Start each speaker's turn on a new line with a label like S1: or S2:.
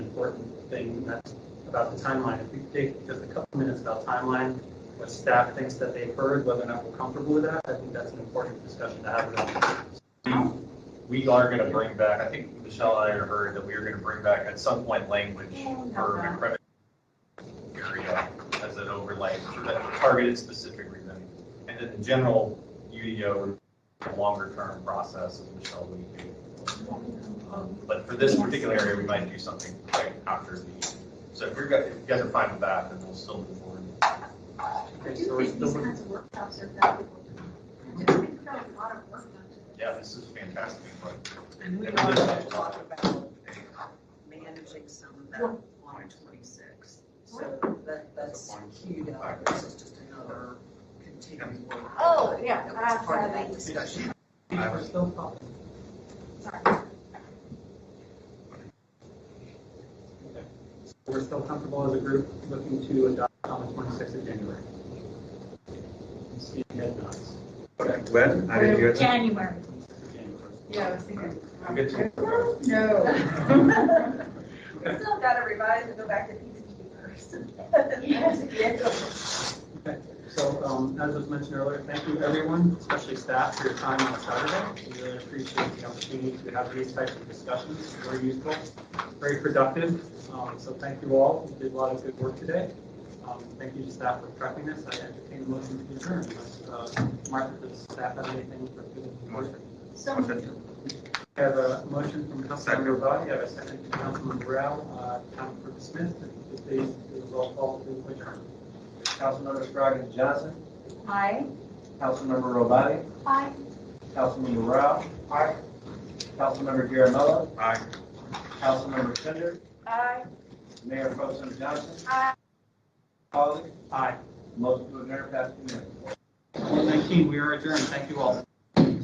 S1: important thing, and that's about the timeline. If we take just a couple minutes about timeline, what staff thinks that they've heard, whether or not we're comfortable with that, I think that's an important discussion to have with them.
S2: We are going to bring back, I think Michelle and I had heard that we are going to bring back at some point language for recrimination area as an overlay for that targeted specific reason. And then the general UDO, a longer term process, as Michelle alluded to. Um, But for this particular area, we might do something right after the, so if you're, go- if you guys are fine with that, then we'll still move forward.
S1: Okay,
S3: do
S1: so we're
S3: think these
S1: still,
S3: kinds of workshops are valuable. We've got a lot of work done.
S2: Yeah, this is fantastic. but-
S4: And we
S2: And
S4: are
S2: we
S4: gonna
S2: just-
S4: talk about managing some of that on twenty-six. So that, that's queued up, this is just another continuing work.
S3: Oh, yeah,
S4: That was part of that
S3: absolutely.
S4: discussion.
S1: we're still talking.
S3: Sorry.
S1: We're still comfortable as a group looking to adopt on the 26th of January. Steve head nods. Okay.
S5: When? I didn't hear that.
S6: January.
S1: 26th of January.
S6: Yeah, I was thinking.
S2: We'll get to-
S3: No. We still gotta revise and go back to peacekeepers.
S1: Okay, So, um, as was mentioned earlier, thank you everyone, especially staff, for your time on Saturday. We really appreciate the opportunity to have these types of discussions, very useful, very productive. Um, so thank you all, you did a lot of good work today. Um, thank you to staff for prepping this, I entertain a motion to adjourn, unless, uh, Martha, does staff have anything for the board?
S3: So
S1: We have a motion from Councilmember Body, I have a second from Councilmember Brown, uh, Councilmember Smith, and if they, do a roll call to adjourn.
S7: Councilmember Scroggins Johnson,
S6: Hi.
S7: Councilmember Robati,
S6: Hi.
S7: Councilmember Rao. Aye. Councilmember Garamella,
S5: Aye.
S7: Councilmember Fender,
S6: Hi.
S7: Mayor Pro Tem Johnson,
S6: Hi.
S7: Pauly,
S1: Aye.
S7: motion to adjourn past two minutes.
S1: Well, 19, we are adjourned. Thank you all.